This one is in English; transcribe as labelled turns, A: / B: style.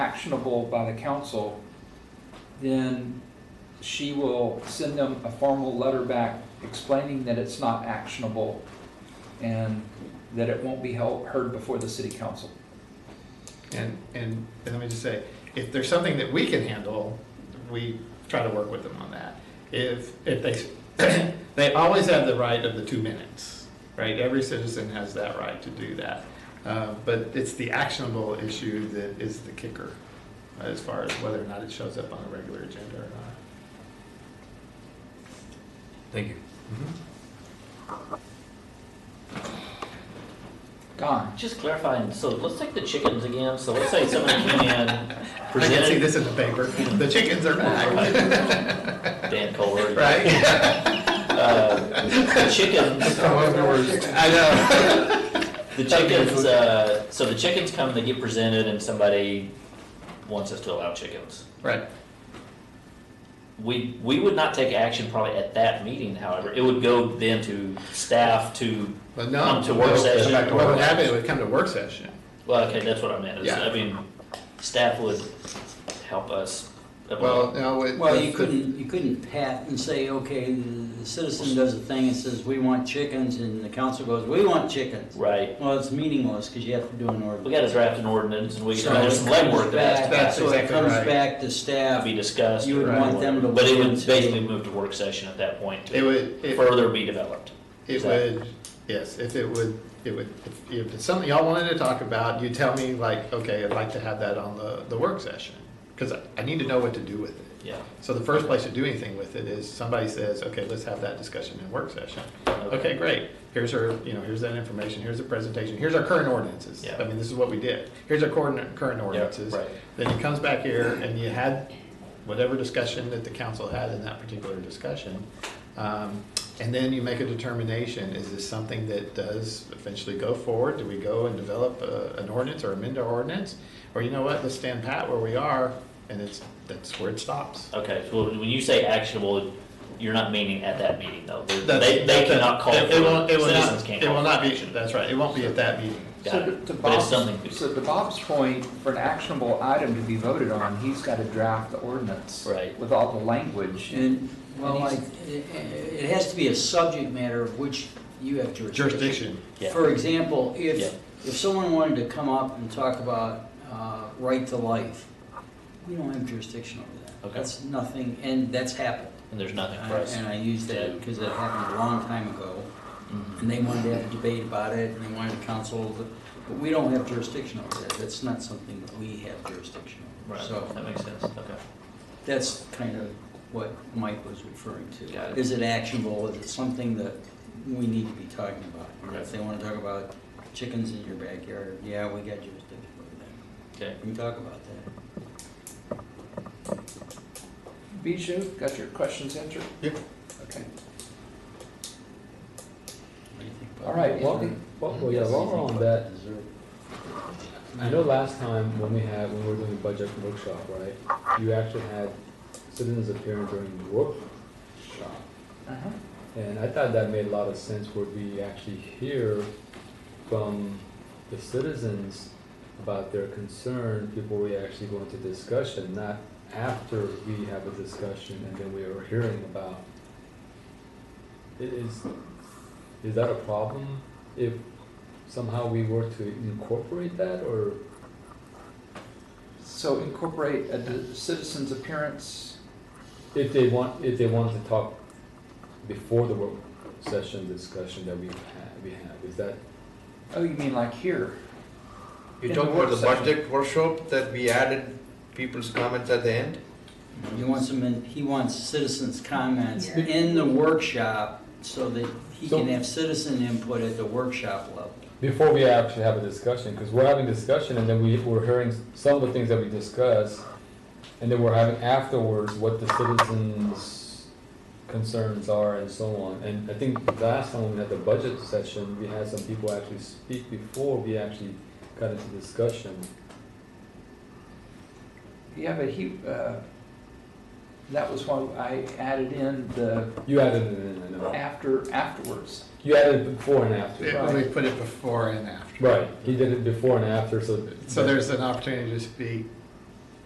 A: actionable by the council, then she will send them a formal letter back explaining that it's not actionable and that it won't be held, heard before the city council.
B: And, and, and let me just say, if there's something that we can handle, we try to work with them on that. If, if they, they always have the right of the two minutes, right? Every citizen has that right to do that. Uh, But it's the actionable issue that is the kicker uh, as far as whether or not it shows up on a regular agenda or not.
C: Thank you.
B: Mm-hmm.
A: Don,
D: Just clarifying, so let's take the chickens again, so let's say someone came in,
B: I can see
D: presented,
B: this in the paper. The chickens are back,
D: Dan Culver.
B: right?
D: Uh, The chickens,
B: I know.
D: the chickens, uh, so the chickens come, and they get presented, and somebody wants us to allow chickens.
B: Right,
D: We, we would not take action probably at that meeting, however, it would go then to staff to,
B: but no.
D: Come to work
B: no,
D: session.
B: What would happen, it would come to work session.
D: well, okay, that's what I meant, is, I
B: Yeah.
D: mean, staff would help us.
B: Well, no, it.
E: Well,
B: the-
E: you
B: the-
E: couldn't, you couldn't pat and say, okay, the the citizen does a thing and says, we want chickens, and the council goes, we want chickens.
D: Right,
E: Well, it's meaningless, because you have to do an
D: we
E: ordinance.
D: gotta draft an ordinance, and we,
E: So
D: there's some
E: it comes
D: legwork that has
E: back-
D: to
B: That's
E: So it
B: exactly
E: comes
B: right.
E: back to staff,
D: be discussed.
E: You would
D: or
E: want them to
D: But it
E: look
D: would
E: into-
D: basically move to work session at that point
B: It
D: to
B: would, it
D: further be developed.
B: It
D: Exactly.
B: would, yes, if it would, it would, if- if it's something y'all wanted to talk about, you tell me like, okay, I'd like to have that on the, the work session. Because I need to know what to do with it.
D: Yeah.
B: So the first place to do anything with it is somebody says, okay, let's have that discussion in work session. Okay, great. Here's our, you know, here's that information, here's the presentation, here's our current ordinances.
D: Yeah.
B: I mean, this is what we did. Here's our current, current ordinances.
D: right.
B: Then it comes back here and you had whatever discussion that the council had in that particular discussion. Um, And then you make a determination, is this something that does eventually go forward? Do we go and develop uh, an ordinance or amend our ordinance? Or you know what, let's stand pat where we are and it's, that's where it stops.
D: Okay, so when you say actionable, you're not meaning at that meeting though. They-
B: That's-
D: They, they
B: that- that-
D: cannot call, for
B: it- it won't- it will not-
D: citizens can't
B: It
D: call
B: will
D: for
B: not be,
D: action.
B: that's right, it won't be at that meeting.
D: Got
A: So
D: it.
A: to
D: But it's something.
A: Bob's, so to Bob's point, for an actionable item to be voted on, he's got to draft the ordinance.
D: Right.
A: With all the language.
E: and, well,
A: And
E: like,
A: he's-
E: it, it has to be a subject matter of which you have jurisdiction.
B: Jurisdiction,
D: Yeah.
E: For example, if,
D: Yeah.
E: if someone wanted to come up and talk about uh, right to life, we don't have jurisdiction over that.
D: Okay.
E: That's nothing, and that's happened.
D: And there's nothing for
E: I-
D: us.
E: Uh, And I use that because it happened a long time ago,
D: Mhm.
E: and they wanted to have a debate about it, and they wanted to counsel, but, but we don't have jurisdiction over that. That's not something that we have jurisdiction over.
D: Right, that
E: So
D: makes sense, okay.
E: that's kind of what Mike was referring to. Is
D: Got it.
E: it actionable? Is it something that we need to be talking about? And
D: Right.
E: If they want to talk about chickens in your backyard, yeah, we got jurisdiction over that.
D: Okay,
E: We can talk about that.
A: Bijou, got your questions answered?
B: Yep.
A: Okay.
E: What do you think about
F: All right,
E: that?
F: well, we- well, well, yeah, while we're on that, I know last time when we had, when we were doing the budget workshop, right, you actually had citizens appearing during the workshop.
A: Uh-huh.
F: And I thought that made a lot of sense where we actually hear from the citizens about their concern before we actually go into discussion, not after we have a discussion and then we are hearing about. I- Is, is that a problem if somehow we were to incorporate that or?
A: So incorporate a d- citizen's appearance.
F: If they want, if they wanted to talk before the work session discussion that we have, we have, is that,
A: Oh, you mean like here?
G: You
A: In
G: talk
A: the
G: about
A: work
G: the
A: session.
G: budget workshop that we added people's comments at the end?
E: He wants them in, he wants citizens' comments in the workshop so that he
F: So-
E: can have citizen input at the workshop level.
F: before we actually have a discussion, because we're having discussion and then we, we're hearing some of the things that we discuss, and then we're having afterwards what the citizens' concerns are and so on. And I think last time we had the budget session, we had some people actually speak before we actually got into discussion.
A: Yeah, but he, uh, that was why I added in the
F: You added it in, I know.
A: after, afterwards.
F: You added it before and after.
B: It- we put it before and after.
F: Right, he did it before and after, so.
B: So there's an opportunity to speak